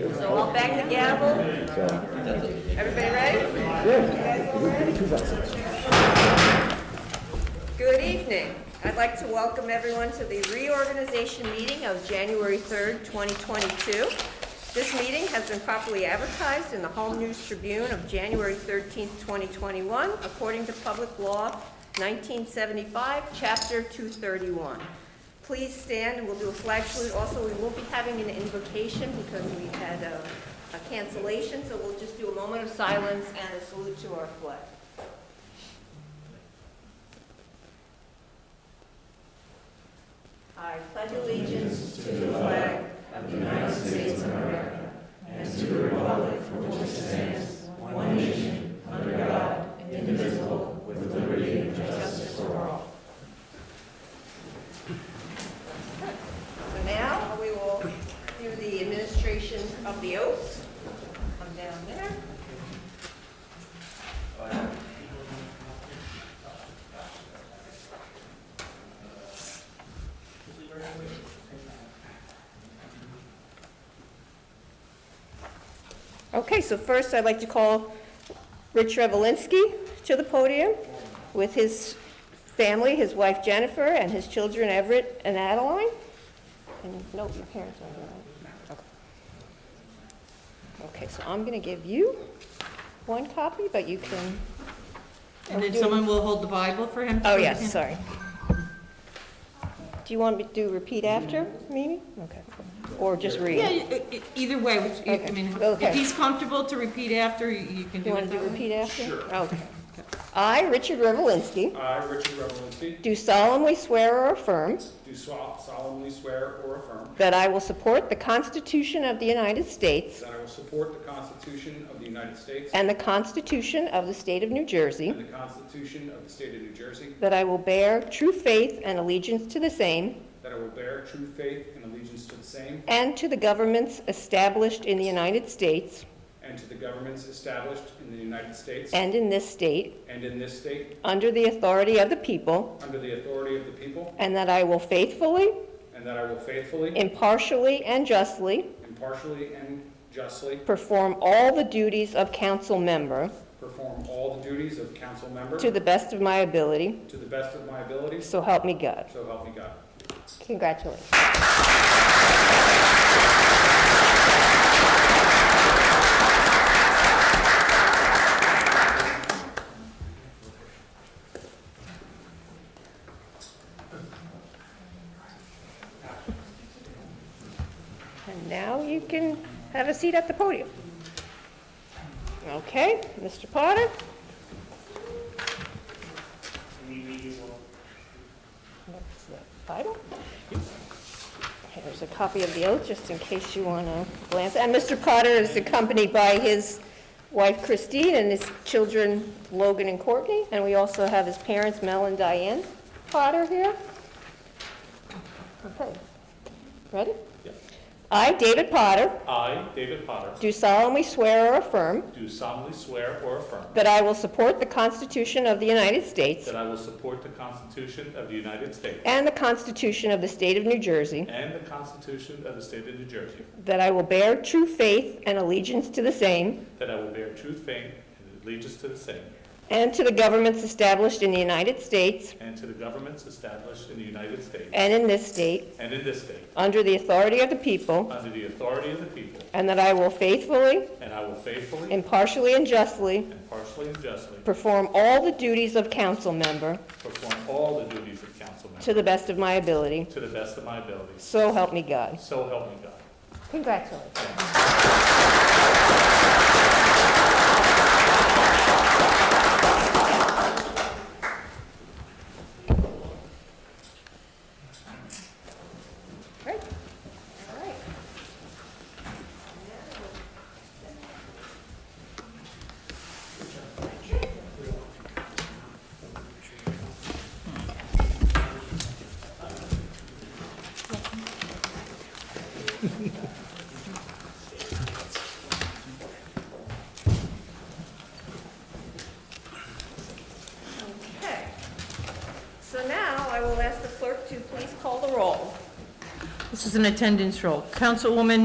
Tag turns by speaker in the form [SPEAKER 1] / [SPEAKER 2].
[SPEAKER 1] back the gavel.
[SPEAKER 2] So,
[SPEAKER 1] Everybody ready?
[SPEAKER 2] yeah.
[SPEAKER 1] Good evening. I'd like to welcome everyone to the reorganization meeting of January 3rd, 2022. This meeting has been properly advertised in the Home News Tribune of January 13th, 2021, according to Public Law 1975, Chapter 231. Please stand and we'll do a flag salute. Also, we will be having an invocation because we had a a cancellation, so we'll just do a moment of silence and a salute to our flag. I pledge allegiance to the flag of the United States of America and to the republic for which it stands, one nation, under God, indivisible, with liberty and justice for all. So now, we will do the administration of the oath. Come down there. Okay, so first I'd like to call Rich Revelinsky to the podium with his family, his wife Jennifer, and his children Everett and Adeline. And no, your parents are here, right? Okay. Okay, so I'm going to give you one copy, but you can,
[SPEAKER 3] And then someone will hold the Bible for him? to
[SPEAKER 1] oh,
[SPEAKER 3] read
[SPEAKER 1] yes,
[SPEAKER 3] him?
[SPEAKER 1] sorry. Do you want me to do repeat after, Mimi? Okay. Or just
[SPEAKER 3] Yeah,
[SPEAKER 1] read?
[SPEAKER 3] e- e- either way, which- I
[SPEAKER 1] Okay,
[SPEAKER 3] mean,
[SPEAKER 1] okay.
[SPEAKER 3] if he's comfortable to repeat after, you you can
[SPEAKER 1] You
[SPEAKER 3] do
[SPEAKER 1] want
[SPEAKER 3] it
[SPEAKER 1] to
[SPEAKER 3] that
[SPEAKER 1] do
[SPEAKER 3] way.
[SPEAKER 1] repeat after?
[SPEAKER 4] Sure.
[SPEAKER 1] Okay. I, Richard Revelinsky,
[SPEAKER 4] I, Richard Revelinsky,
[SPEAKER 1] do solemnly swear or affirm
[SPEAKER 4] do so- solemnly swear or affirm
[SPEAKER 1] That I will support the Constitution of the United States
[SPEAKER 4] that I will support the Constitution of the United States
[SPEAKER 1] and the Constitution of the State of New Jersey.
[SPEAKER 4] and the Constitution of the State of New Jersey,
[SPEAKER 1] That I will bear true faith and allegiance to the same
[SPEAKER 4] that I will bear true faith and allegiance to the same
[SPEAKER 1] and to the governments established in the United States
[SPEAKER 4] and to the governments established in the United States
[SPEAKER 1] and in this state
[SPEAKER 4] and in this state,
[SPEAKER 1] under the authority of the people.
[SPEAKER 4] under the authority of the people,
[SPEAKER 1] And that I will faithfully,
[SPEAKER 4] and that I will faithfully,
[SPEAKER 1] impartially, and justly
[SPEAKER 4] impartially, and justly
[SPEAKER 1] perform all the duties of council member
[SPEAKER 4] perform all the duties of council member
[SPEAKER 1] to
[SPEAKER 4] to
[SPEAKER 1] the best of my ability.
[SPEAKER 4] the best of my abilities,
[SPEAKER 1] So help me God.
[SPEAKER 4] so help me God.
[SPEAKER 1] Congratulations. And now you can have a seat at the podium. Okay, Mr. Potter? That's the Bible. Here's a copy of the oath, just in case you want to glance. And Mr. Potter is accompanied by his wife Christine and his children Logan and Courtney. And we also have his parents, Mel and Diane Potter here. Okay. Ready?
[SPEAKER 4] Yep.
[SPEAKER 1] I, David Potter,
[SPEAKER 4] I, David Potter,
[SPEAKER 1] do solemnly swear or affirm
[SPEAKER 4] do solemnly swear or affirm
[SPEAKER 1] that I will support the Constitution of the United States
[SPEAKER 4] That I will support the Constitution of the United States
[SPEAKER 1] and the Constitution of the State of New Jersey,
[SPEAKER 4] and the Constitution of the State of New Jersey.
[SPEAKER 1] that I will bear true faith and allegiance to the same,
[SPEAKER 4] That I will bear true faith and allegiance to the same
[SPEAKER 1] And to the governments established in the United States
[SPEAKER 4] and to the governments established in the United States
[SPEAKER 1] and in this state,
[SPEAKER 4] and in this state,
[SPEAKER 1] under the authority of the people,
[SPEAKER 4] under the authority of the people,
[SPEAKER 1] and that I will faithfully,
[SPEAKER 4] and I will faithfully,
[SPEAKER 1] impartially, and justly
[SPEAKER 4] impartially, and justly
[SPEAKER 1] perform all the duties of council member
[SPEAKER 4] perform all the duties of council member
[SPEAKER 1] to the best of my ability.
[SPEAKER 4] to the best of my abilities.
[SPEAKER 1] So help me God.
[SPEAKER 4] So help me God.
[SPEAKER 1] Congratulations. Great. All right. Okay. So now I will ask the clerk to please call the roll.
[SPEAKER 3] This is an attendance roll. Councilwoman